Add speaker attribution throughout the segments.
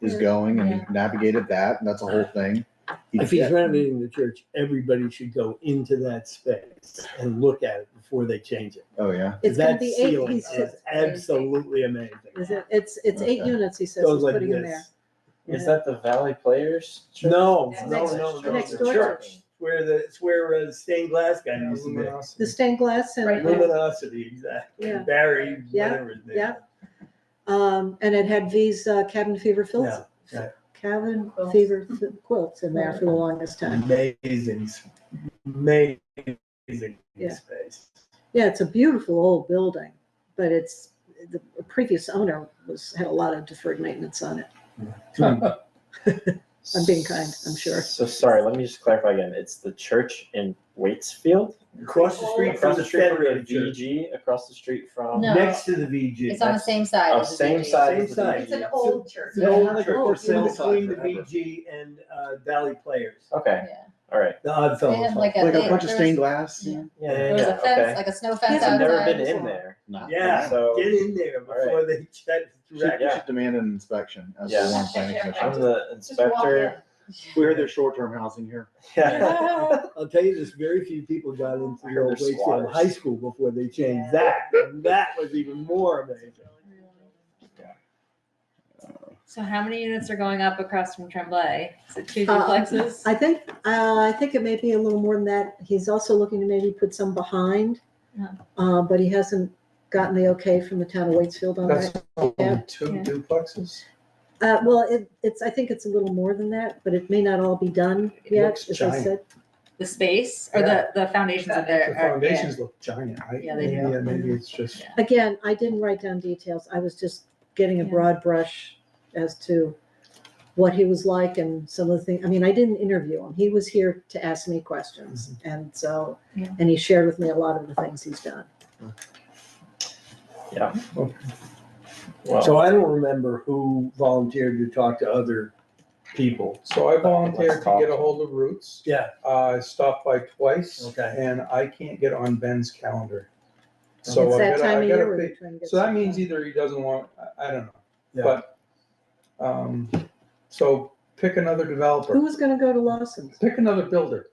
Speaker 1: is going and navigated that, and that's a whole thing. He
Speaker 2: If he's
Speaker 1: did.
Speaker 2: renovating the church, everybody should go into that space and look at it before they change it.
Speaker 1: Oh, yeah,
Speaker 3: It's gonna
Speaker 2: That
Speaker 3: be eight,
Speaker 2: ceiling
Speaker 3: he's
Speaker 2: is
Speaker 3: just-
Speaker 2: absolutely amazing.
Speaker 3: Is it, it's, it's eight
Speaker 1: Okay.
Speaker 3: units, he says,
Speaker 2: Goes
Speaker 3: he's
Speaker 2: like
Speaker 3: putting in there.
Speaker 2: this.
Speaker 4: Is that the Valley Players? church?
Speaker 2: No,
Speaker 5: Next-
Speaker 2: no,
Speaker 3: next-
Speaker 2: no, no.
Speaker 3: next
Speaker 2: the
Speaker 3: door to
Speaker 2: church.
Speaker 3: me.
Speaker 2: Where the, it's where uh, stained glass guy used to be.
Speaker 3: The
Speaker 4: Luminosity.
Speaker 3: stained glass
Speaker 5: Right.
Speaker 3: and,
Speaker 2: Luminosity, exactly.
Speaker 3: Yeah.
Speaker 2: Barry,
Speaker 3: Yeah,
Speaker 2: whatever his name.
Speaker 3: yeah. um, and it had V's uh, cabin fever filts.
Speaker 2: Yeah, yeah.
Speaker 3: Cabin
Speaker 5: Quilts.
Speaker 3: fever fi- quilts in there for the longest time.
Speaker 2: Amazing, s- amazing
Speaker 3: Yeah.
Speaker 2: space.
Speaker 3: Yeah, it's a beautiful old building, but it's, the previous owner was, had a lot of deferred maintenance on it. I'm being kind, I'm sure.
Speaker 4: So sorry, let me just clarify again. It's the church in Waitsfield?
Speaker 2: Across the street from
Speaker 4: Across
Speaker 2: the
Speaker 4: the street from the
Speaker 2: Federated Church,
Speaker 4: VG, across the street from?
Speaker 5: No.
Speaker 2: next to the VG.
Speaker 5: It's on the same side.
Speaker 4: Oh,
Speaker 5: as the
Speaker 4: same
Speaker 5: VG.
Speaker 4: side.
Speaker 2: Same
Speaker 4: as the
Speaker 2: side.
Speaker 4: VG.
Speaker 5: It's an old church.
Speaker 2: It's an
Speaker 3: uh,
Speaker 2: old
Speaker 5: Yeah.
Speaker 2: church for sale between
Speaker 4: sale
Speaker 2: the
Speaker 4: sign forever.
Speaker 2: VG and uh, Valley Players,
Speaker 4: Okay,
Speaker 5: Yeah.
Speaker 4: all right.
Speaker 2: the Odd
Speaker 5: They had
Speaker 2: Fellows.
Speaker 5: like a,
Speaker 1: like a
Speaker 5: they-
Speaker 1: bunch of
Speaker 5: there
Speaker 1: stained
Speaker 5: was-
Speaker 1: glass.
Speaker 5: yeah.
Speaker 4: Yeah,
Speaker 5: There was a
Speaker 4: yeah,
Speaker 5: fence,
Speaker 4: okay.
Speaker 5: like a snow
Speaker 3: Yes,
Speaker 5: fence
Speaker 4: I've never
Speaker 5: outside.
Speaker 4: been in there.
Speaker 1: Nah.
Speaker 2: Yeah.
Speaker 4: So
Speaker 2: Get in there before they shut
Speaker 1: We should-
Speaker 2: it direct.
Speaker 1: we should demand an inspection as the
Speaker 4: Yeah.
Speaker 1: Warren planning
Speaker 4: I'm
Speaker 1: commission.
Speaker 4: the
Speaker 5: Just walk
Speaker 4: inspector.
Speaker 1: We heard there's short-term housing here.
Speaker 4: Yeah.
Speaker 2: I'll tell you this, very few people got into the
Speaker 4: I heard
Speaker 2: old
Speaker 4: they're
Speaker 2: Wakefield
Speaker 4: squatters.
Speaker 2: High School before they changed that. And that was even more amazing.
Speaker 6: So how many units are going up across from Tremblay? Is it two
Speaker 3: Uh,
Speaker 6: duplexes?
Speaker 3: I think, uh, I think it may be a little more than that. He's also looking to maybe put some behind.
Speaker 6: Yeah.
Speaker 3: Uh, but he hasn't gotten the okay from the town of Waitsfield on that.
Speaker 4: That's
Speaker 7: Oh,
Speaker 4: only two
Speaker 6: Yeah.
Speaker 4: duplexes?
Speaker 3: Uh, well, it, it's, I think it's a little more than that, but it may not all be done yet,
Speaker 7: looks
Speaker 3: as I
Speaker 7: giant.
Speaker 3: said.
Speaker 6: The space or
Speaker 7: Yeah.
Speaker 6: the, the foundations of
Speaker 7: The
Speaker 6: their? are- yeah.
Speaker 7: foundations look giant, right?
Speaker 6: Yeah, they
Speaker 7: Maybe-
Speaker 6: do. Mm-hmm.
Speaker 7: uh, Maybe it's just,
Speaker 3: Again, I didn't write down details. I was just getting a
Speaker 6: Yeah.
Speaker 3: broad brush as to what he was like and some of the things. I mean, I didn't interview him. He was here to ask me questions.
Speaker 7: Mm-hmm.
Speaker 3: And so,
Speaker 6: Yeah.
Speaker 3: and he shared with me a lot of the things he's done.
Speaker 4: Well,
Speaker 2: So I don't remember who volunteered to talk to other people.
Speaker 7: so I volunteered
Speaker 4: Let's talk.
Speaker 7: to get a hold of Roots.
Speaker 2: Yeah.
Speaker 7: Uh, I stopped by twice.
Speaker 2: Okay.
Speaker 7: And I can't get on Ben's calendar. So
Speaker 3: It's
Speaker 7: I
Speaker 3: that
Speaker 7: gotta,
Speaker 3: time
Speaker 7: I
Speaker 3: of year.
Speaker 7: gotta
Speaker 3: where they're
Speaker 7: think,
Speaker 3: trying to get
Speaker 7: so that
Speaker 3: stuff
Speaker 7: means
Speaker 3: done.
Speaker 7: either he doesn't want, I, I don't know,
Speaker 2: Yeah.
Speaker 7: but, um, so pick another
Speaker 3: Who
Speaker 7: developer,
Speaker 3: was gonna go to Lawson's?
Speaker 7: pick another builder.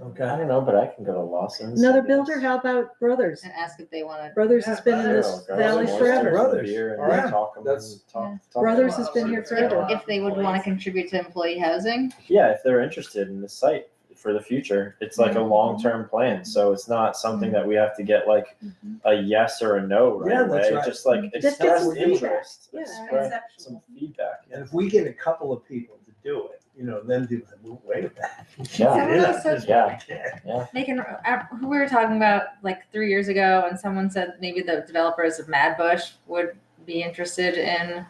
Speaker 4: I
Speaker 2: Okay.
Speaker 4: don't know, but I can go to Lawson's.
Speaker 3: Another
Speaker 4: I guess.
Speaker 3: builder? How about Brothers?
Speaker 6: And ask if they want
Speaker 3: Brothers has been in
Speaker 4: Yeah,
Speaker 3: this
Speaker 4: I'll grab
Speaker 3: valley
Speaker 4: some oysters
Speaker 3: forever.
Speaker 4: and Oh, a
Speaker 7: Brothers,
Speaker 4: beer and
Speaker 7: all right.
Speaker 4: talk 'em
Speaker 7: That's-
Speaker 4: and talk-
Speaker 6: Yeah.
Speaker 4: talk 'em
Speaker 3: Brothers
Speaker 4: out,
Speaker 3: has
Speaker 4: see
Speaker 3: been
Speaker 4: if
Speaker 3: here
Speaker 4: it's
Speaker 3: forever.
Speaker 4: got-
Speaker 6: to, if they would want to contribute to employee housing.
Speaker 4: Yeah, if they're interested in the site for the future, it's like a long-term plan, so it's not something that we have to get like
Speaker 5: Mm-hmm.
Speaker 4: a yes or a no right
Speaker 2: Yeah, that's
Speaker 4: away,
Speaker 2: right.
Speaker 4: just like
Speaker 3: Just get
Speaker 4: express
Speaker 3: some
Speaker 4: interest,
Speaker 3: feedback. Yeah,
Speaker 4: express some
Speaker 5: Exceptional.
Speaker 4: feedback.
Speaker 2: And if we get a couple of people to do it, you know, then do it, we'll wait.
Speaker 4: Yeah,
Speaker 6: Someone
Speaker 2: Yeah.
Speaker 6: else said-
Speaker 4: Yeah.
Speaker 6: They can, uh, who we were talking about like three years ago and someone said maybe the developers of Mad Bush would be interested in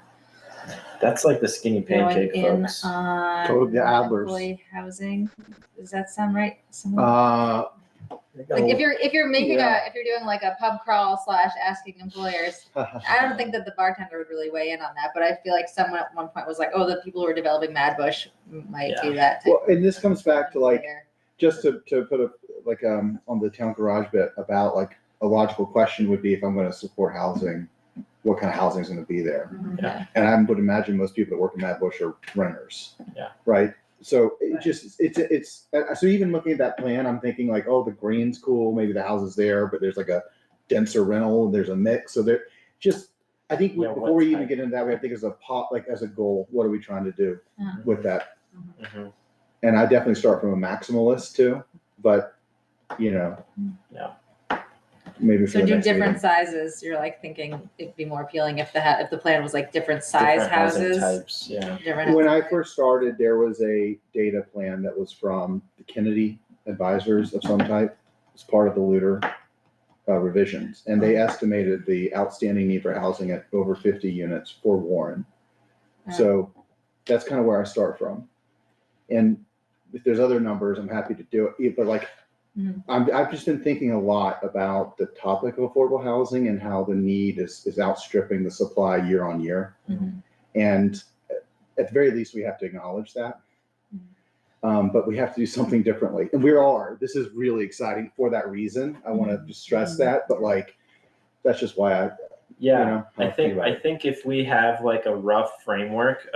Speaker 4: that's like the skinny
Speaker 6: going
Speaker 4: pancake,
Speaker 6: in um,
Speaker 4: folks.
Speaker 1: Go
Speaker 6: on
Speaker 1: to the Adlers.
Speaker 6: employee housing. Does that sound right? Someone-
Speaker 1: Uh,
Speaker 6: Like if you're, if you're making a, if you're doing like a pub crawl slash asking employers, I don't think that the bartender would really weigh in on that, but I feel like someone at one point was like, "Oh, the people who are developing Mad Bush might do that." type
Speaker 1: Well, and this comes back to
Speaker 6: of
Speaker 1: like,
Speaker 6: layer."
Speaker 1: just to, to put a, like, um, on the town garage bit about like, a logical question would be if I'm gonna support housing, what kind of housing is gonna be there?
Speaker 6: Mm-hmm.
Speaker 4: Yeah.
Speaker 1: And I would imagine most people that work in Mad Bush are renters.
Speaker 4: Yeah.
Speaker 1: Right? So it just, it's, it's, uh, so even looking at that plan, I'm thinking like, oh, the green's cool, maybe the house is there, but there's like a denser rental, there's a mix, so there, just, I think we-
Speaker 4: Yeah, what
Speaker 1: before we even
Speaker 4: type?
Speaker 1: get into that, we have to think as a pot, like as a goal, what are we trying to do
Speaker 6: Yeah.
Speaker 1: with that?
Speaker 4: Mhm.
Speaker 1: And I definitely start from a maximalist too, but, you know.
Speaker 4: Yeah.
Speaker 1: Maybe for
Speaker 6: So
Speaker 1: the
Speaker 6: do
Speaker 1: next meeting.
Speaker 6: different sizes. You're like thinking it'd be more appealing if the ha- if the plan was like different size
Speaker 4: Different housing
Speaker 6: houses.
Speaker 4: Types, yeah.
Speaker 6: different-
Speaker 1: When I first started, there was a data plan that was from the Kennedy advisors of some type. It's part of the looter uh, revisions, and they estimated the outstanding need for housing at over fifty units for Warren. So that's kind of where I start from. And if there's other numbers, I'm happy to do it, but like,
Speaker 6: Mhm.
Speaker 1: I'm, I've just been thinking a lot about the topic of affordable housing and how the need is, is outstripping the supply year on year.
Speaker 6: Mhm.
Speaker 1: And at the very least, we have to acknowledge that. Um, but we have to do something differently, and we are, this is really exciting for that reason, I wanna just stress that, but like, that's just why I, you
Speaker 4: Yeah,
Speaker 1: know. how
Speaker 4: I think,
Speaker 1: about it.
Speaker 4: I think if we have like a rough framework